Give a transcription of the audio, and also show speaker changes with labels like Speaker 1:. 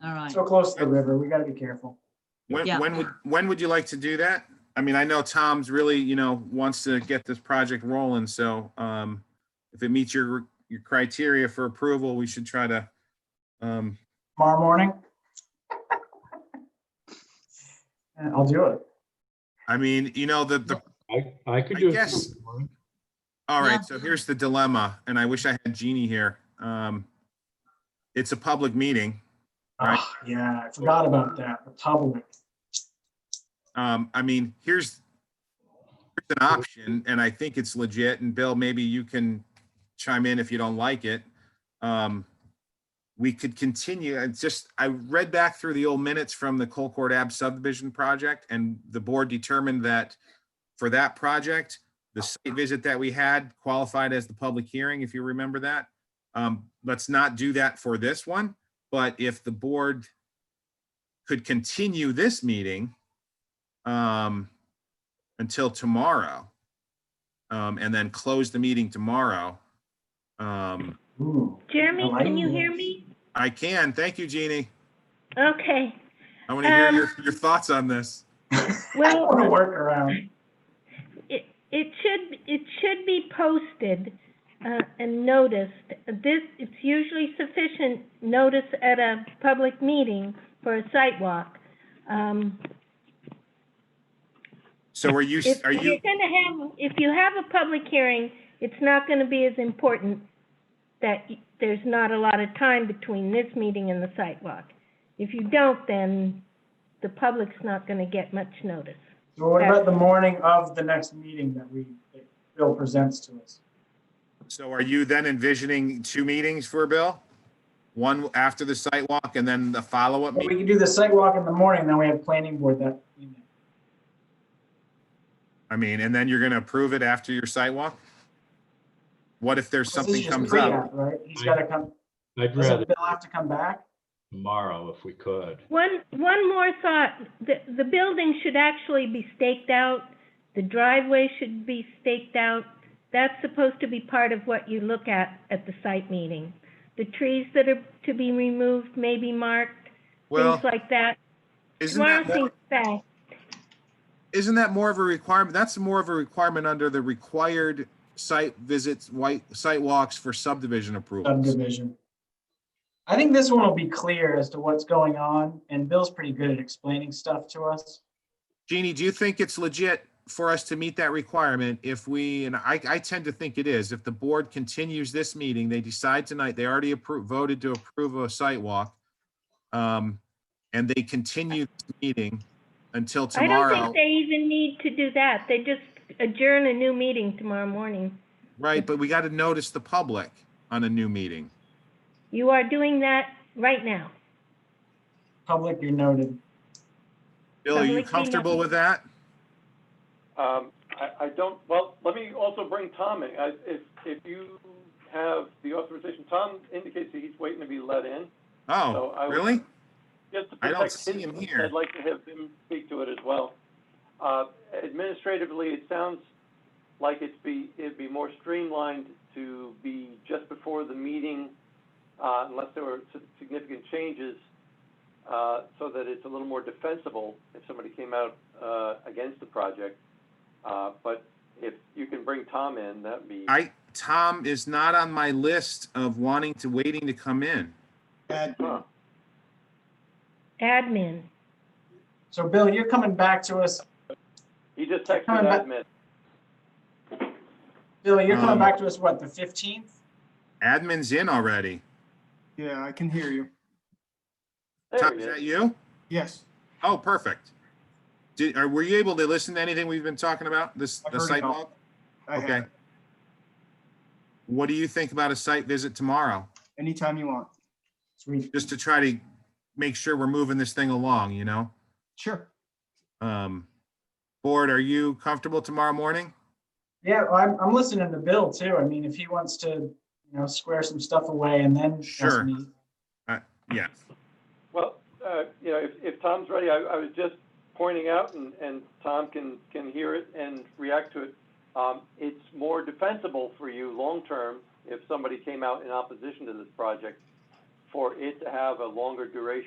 Speaker 1: fine.
Speaker 2: So close to the river, we gotta be careful.
Speaker 3: When,
Speaker 1: Yeah.
Speaker 3: when would, when would you like to do that? I mean, I know Tom's really, you know, wants to get this project rolling, so, um, if it meets your, your criteria for approval, we should try to, um,
Speaker 2: Tomorrow morning? Yeah, I'll do it.
Speaker 3: I mean, you know, the, the,
Speaker 4: I, I could
Speaker 3: I
Speaker 4: do it.
Speaker 3: guess-
Speaker 4: tomorrow.
Speaker 3: all
Speaker 1: Yeah.
Speaker 3: right, so here's the dilemma, and I wish I had Jeannie here. Um, it's a public meeting. Right.
Speaker 2: Ah, Yeah, I forgot about that, the public.
Speaker 3: Um, I mean, here's here's an option, and I think it's legit, and Bill, maybe you can chime in if you don't like it. Um, we could continue, and just, I read back through the old minutes from the Colcord Ave subdivision project, and the board determined that for that project, the site visit that we had qualified as the public hearing, if you remember that. Um, let's not do that for this one, but if the board could continue this meeting um, until tomorrow. Um, and then close the meeting tomorrow. Um,
Speaker 2: Ooh,
Speaker 5: Jeremy,
Speaker 2: I
Speaker 5: can you
Speaker 2: like
Speaker 5: hear
Speaker 2: this.
Speaker 5: me?
Speaker 3: I can, thank you, Jeannie.
Speaker 5: Okay,
Speaker 3: I want to hear
Speaker 5: Um,
Speaker 3: your, your thoughts on this.
Speaker 2: I
Speaker 5: well,
Speaker 2: wanna work around.
Speaker 5: it, it should, it should be posted, uh, and noticed. This, it's usually sufficient notice at a public meeting for a site walk. Um,
Speaker 3: So are you,
Speaker 5: if
Speaker 3: are
Speaker 5: you're
Speaker 3: you,
Speaker 5: gonna have, if you have a public hearing, it's not gonna be as important that y- there's not a lot of time between this meeting and the site walk. If you don't, then the public's not gonna get much notice.
Speaker 2: So what about the morning of the next meeting that we, that Bill presents to us?
Speaker 3: so are you then envisioning two meetings for Bill? One after the site walk and then the follow-up
Speaker 2: Well, We
Speaker 3: meeting?
Speaker 2: can do the site walk in the morning, then we have planning board that. evening.
Speaker 3: I mean, and then you're going to approve it after your site walk? What if
Speaker 2: This
Speaker 3: there's
Speaker 2: is
Speaker 3: something
Speaker 2: just
Speaker 3: comes
Speaker 2: pre-app,
Speaker 3: up?
Speaker 2: Right, he's gotta come,
Speaker 4: I'd rather
Speaker 2: doesn't Bill have to come back?
Speaker 4: tomorrow if we could.
Speaker 5: One, one more thought, the, the building should actually be staked out, the driveway should be staked out. That's supposed to be part of what you look at, at the site meeting. The trees that are to be removed may be marked,
Speaker 3: Well,
Speaker 5: things like that.
Speaker 3: isn't
Speaker 5: Tomorrow
Speaker 3: that more?
Speaker 5: seems fast.
Speaker 3: isn't that more of a requirement? That's more of a requirement under the required site visits, white site walks for subdivision approvals.
Speaker 2: subdivision. I think this one will be clear as to what's going on, and Bill's pretty good at explaining stuff to us.
Speaker 3: Jeannie, do you think it's legit for us to meet that requirement if we, and I, I tend to think it is, if the board continues this meeting, they decide tonight, they already approved, voted to approve a site walk. Um, and they continue the meeting until
Speaker 5: I don't
Speaker 3: tomorrow,
Speaker 5: think they even need to do that, they just adjourn a new meeting tomorrow morning.
Speaker 3: right? But we got to notice the public on a new meeting.
Speaker 5: You are doing that right now.
Speaker 2: Public, you're noted.
Speaker 3: Bill, are you
Speaker 5: Public meeting.
Speaker 3: comfortable with that?
Speaker 6: Um, I, I don't, well, let me also bring Tom in. I, if, if you have the authorization, Tom indicates that he's waiting to be let in. So
Speaker 3: Oh,
Speaker 6: I would-
Speaker 3: really?
Speaker 6: Just to
Speaker 3: I don't
Speaker 6: protect
Speaker 3: see
Speaker 6: his-
Speaker 3: him here.
Speaker 6: I'd like to have him speak to it as well. Uh, administratively, it sounds like it'd be, it'd be more streamlined to be just before the meeting, uh, unless there were si- significant changes, uh, so that it's a little more defensible if somebody came out, uh, against the project. Uh, but if you can bring Tom in, that'd be.
Speaker 3: I, Tom is not on my list of wanting to, waiting to come in.
Speaker 6: Huh.
Speaker 5: Admin,
Speaker 2: So Bill, you're coming back to us.
Speaker 6: He just texted
Speaker 2: Coming back-
Speaker 6: admin.
Speaker 2: Bill, you're
Speaker 3: Um,
Speaker 2: coming back to us, what, the fifteenth?
Speaker 3: Admin's in already.
Speaker 7: Yeah, I can hear you.
Speaker 6: There
Speaker 3: Tom,
Speaker 6: he
Speaker 3: is
Speaker 6: is.
Speaker 3: that you?
Speaker 7: Yes.
Speaker 3: Oh, perfect. Did, are, were you able to listen to anything we've been talking about, this,
Speaker 7: I
Speaker 3: the
Speaker 7: heard it
Speaker 3: site
Speaker 7: all.
Speaker 3: walk?
Speaker 7: I have
Speaker 3: Okay.
Speaker 7: it.
Speaker 3: What do you think about a site visit tomorrow?
Speaker 7: Anytime you want.
Speaker 2: Sweet.
Speaker 3: Just to try to make sure we're moving this thing along, you know?
Speaker 7: Sure.
Speaker 3: Um, board, are you comfortable tomorrow morning?
Speaker 2: Yeah, well, I'm, I'm listening to Bill too. I mean, if he wants to, you know, square some stuff away and then. ask
Speaker 3: Sure.
Speaker 2: me-
Speaker 3: Yeah.
Speaker 6: Well, uh, you know, if, if Tom's ready, I, I was just pointing out, and, and Tom can, can hear it and react to it. Um, it's more defensible for you long-term if somebody came out in opposition to this project, for it to have a longer duration.